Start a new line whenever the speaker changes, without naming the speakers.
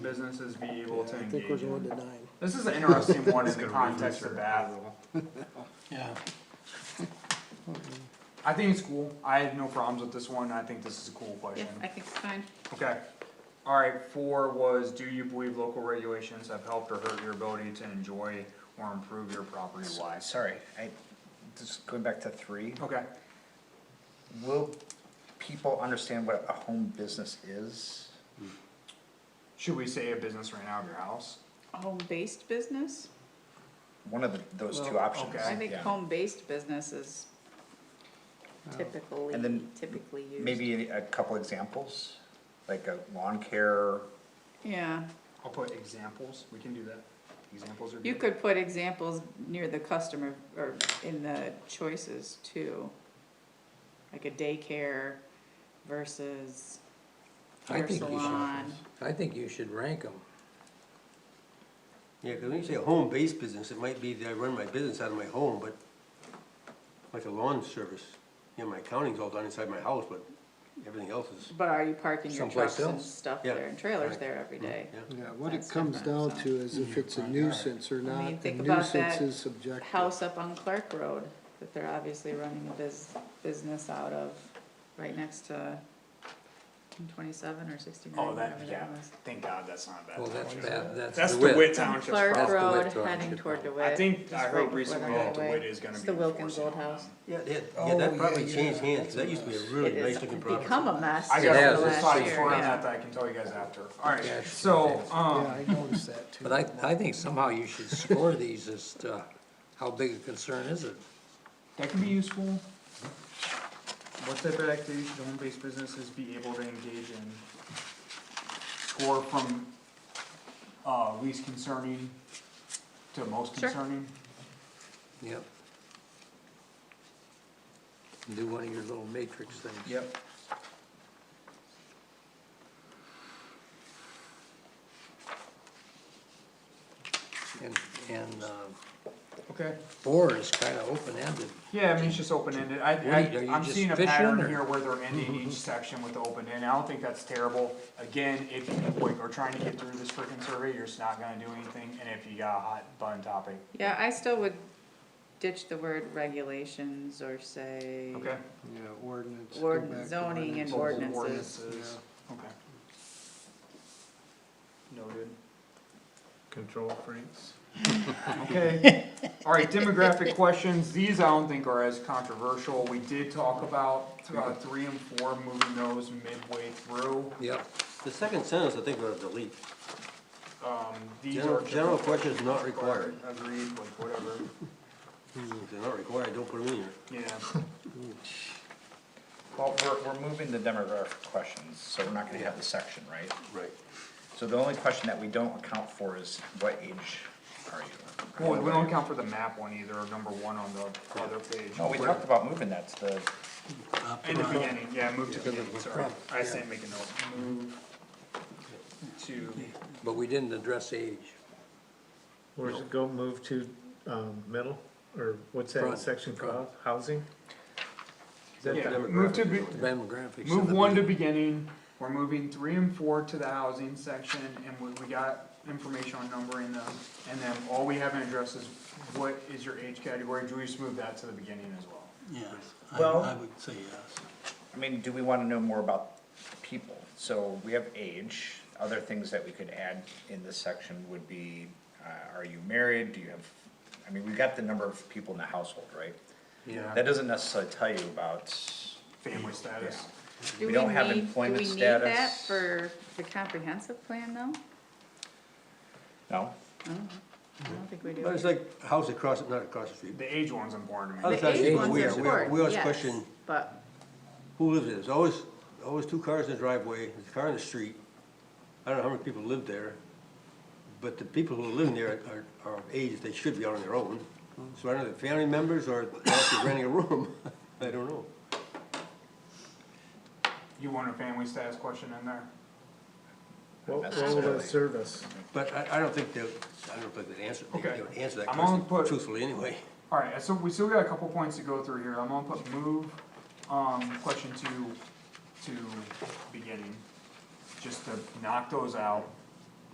businesses be able to
I think
engage
we're going
in.
to nine.
This is an interesting one in the context of Bath.
Yeah.
I think it's cool, I have no problems with this one, I think this is a cool
Yeah,
question.
I think it's fine.
Okay, alright, four was, do you believe local regulations have helped or hurt your ability to enjoy or improve your property life?
Sorry, I, just going back to three,
Okay,
will people understand what a home business is?
should we say a business right now of your house?
A Home-based business?
One of the, those two
Well,
options,
okay.
I think
Uh, yeah.
home-based business is typically,
And then
typically used.
Maybe a couple examples, like a lawn care,
Yeah,
I'll put examples, we can do that, examples are good.
you could put examples near the customer or in the choices too. Like a daycare versus
I
hair
think you
salon.
should, I think you should rank them.
Yeah, 'cause when you say a home-based business, it might be that I run my business out of my home, but like a lawn service, you know, my accounting's all done inside my house, but everything else is,
But are you parking your
Someplace
trucks and
else. Mm-hmm.
stuff
Yeah,
there and trailers
right.
there every day?
yeah.
Yeah, what it
That's
comes
different,
down
so.
to is if it's a nuisance or not,
think
and
about that
nuisance is subjective.
house up on Clark Road that they're obviously running a biz, business out of, right next to twenty-seven or sixty-nine,
Oh,
whatever
that,
that
yeah,
was.
thank God, that's not bad.
Well, that's bad, that's.
That's the wit township's
Clark
problem.
That's the
Road
Wit
heading
Township
toward
I
DeWitt.
think, I
just
heard
right
recently
before
that
the highway.
DeWitt is gonna be
It's the Wilkins
enforcing
Old
on them.
House.
Yeah, they had-
Oh,
yeah, that
yeah,
probably
yeah,
changed hands, 'cause
that's
that
a
used to be a
mess.
It
really
is,
nice-looking
it's
property.
become a mess
I
since
Yeah,
got a
the
it's-
last
side
year,
story on
yeah.
that that I can tell you guys after, alright, so,
Yeah,
um,
I noticed that too.
But I, I think somehow you should score these as to uh, how big a concern is it?
that can be useful. What type of activities should home-based businesses be able to engage in? Score from, uh, least concerning to most
Sure.
concerning?
Yep. Do one of your little matrix things.
Yep.
And, and, um,
Okay,
four is kinda open-ended.
yeah, I mean, it's just open-ended, I,
What are you- are
I,
you
I'm
just
seeing a
fishing,
pattern
or-
here where they're ending each section with open-ended, I don't think that's terrible. Again, if you, like, are trying to get through this freaking survey, you're just not gonna do anything, and if you got a hot button topic,
Yeah, I still would ditch the word regulations or say
okay?
Yeah, ordinance. go
Ordin-
back to
zoning
ordinance.
and ordinance.
Local
ordinances.
ordinances. Okay. Noted.
Control freaks.
Okay, alright, demographic questions, these I don't think are as controversial, we did talk about, uh, three and four, moving those midway through.
Yep,
The second sentence, I think, we're gonna delete.
Um, these are.
General,
just-
general questions not required.
Agreed, like whatever,
If they're not required, don't put them in here.
yeah,
well, we're, we're moving the demographic questions, so we're not gonna have the section, right?
Right.
So the only question that we don't account for is what age are you?
well, we don't count for the map one either, or number one on the other page.
No, we talked about moving that to the,
In the beginning, yeah, move to the beginning, sorry, I said make a note, move to
but we didn't address age.
Where's it go, move to, um, middle, or what's
Front,
that section called,
front.
housing? Is that
Yeah,
the-
move to, be-
Demographics. in
move
the
one to
beginning.
beginning, we're moving three and four to the housing section, and we, we got information on numbering them. And then all we haven't addressed is what is your age category, do we just move that to the beginning as well?
Yes,
Well-
would say yes.
I mean, do we wanna know more about people? So we have age, other things that we could add in this section would be, uh, are you married, do you have, I mean, we got the number of people in the household, right?
Yeah.
That doesn't necessarily tell you about,
Family status,
Do
We don't have
need-
employment
Do we need that
status.
for the comprehensive plan though?
no?
I don't think we do.
But it's like a house across, not across the street.
the age one's important to me.
Other
The
side,
age
it's
ones are
weird. We are- we
important,
always
yes,
question
but.
Who lives there? There's always, always two cars in the driveway, there's a car in the street. I don't know how many people live there, but the people who live there are, are of age, they should be out on their own. So I don't know, if they're family members or they're renting a room, I don't know.
You want a family status question in there?
What, what will that serve us?
But I, I don't think they'll, I don't think they'd answer, they
Okay.
would answer that
I'm gonna
question
put-
truthfully anyway.
Alright, so we still got a couple points to go through here, I'm gonna put move, um, question two to beginning. Just to knock those out,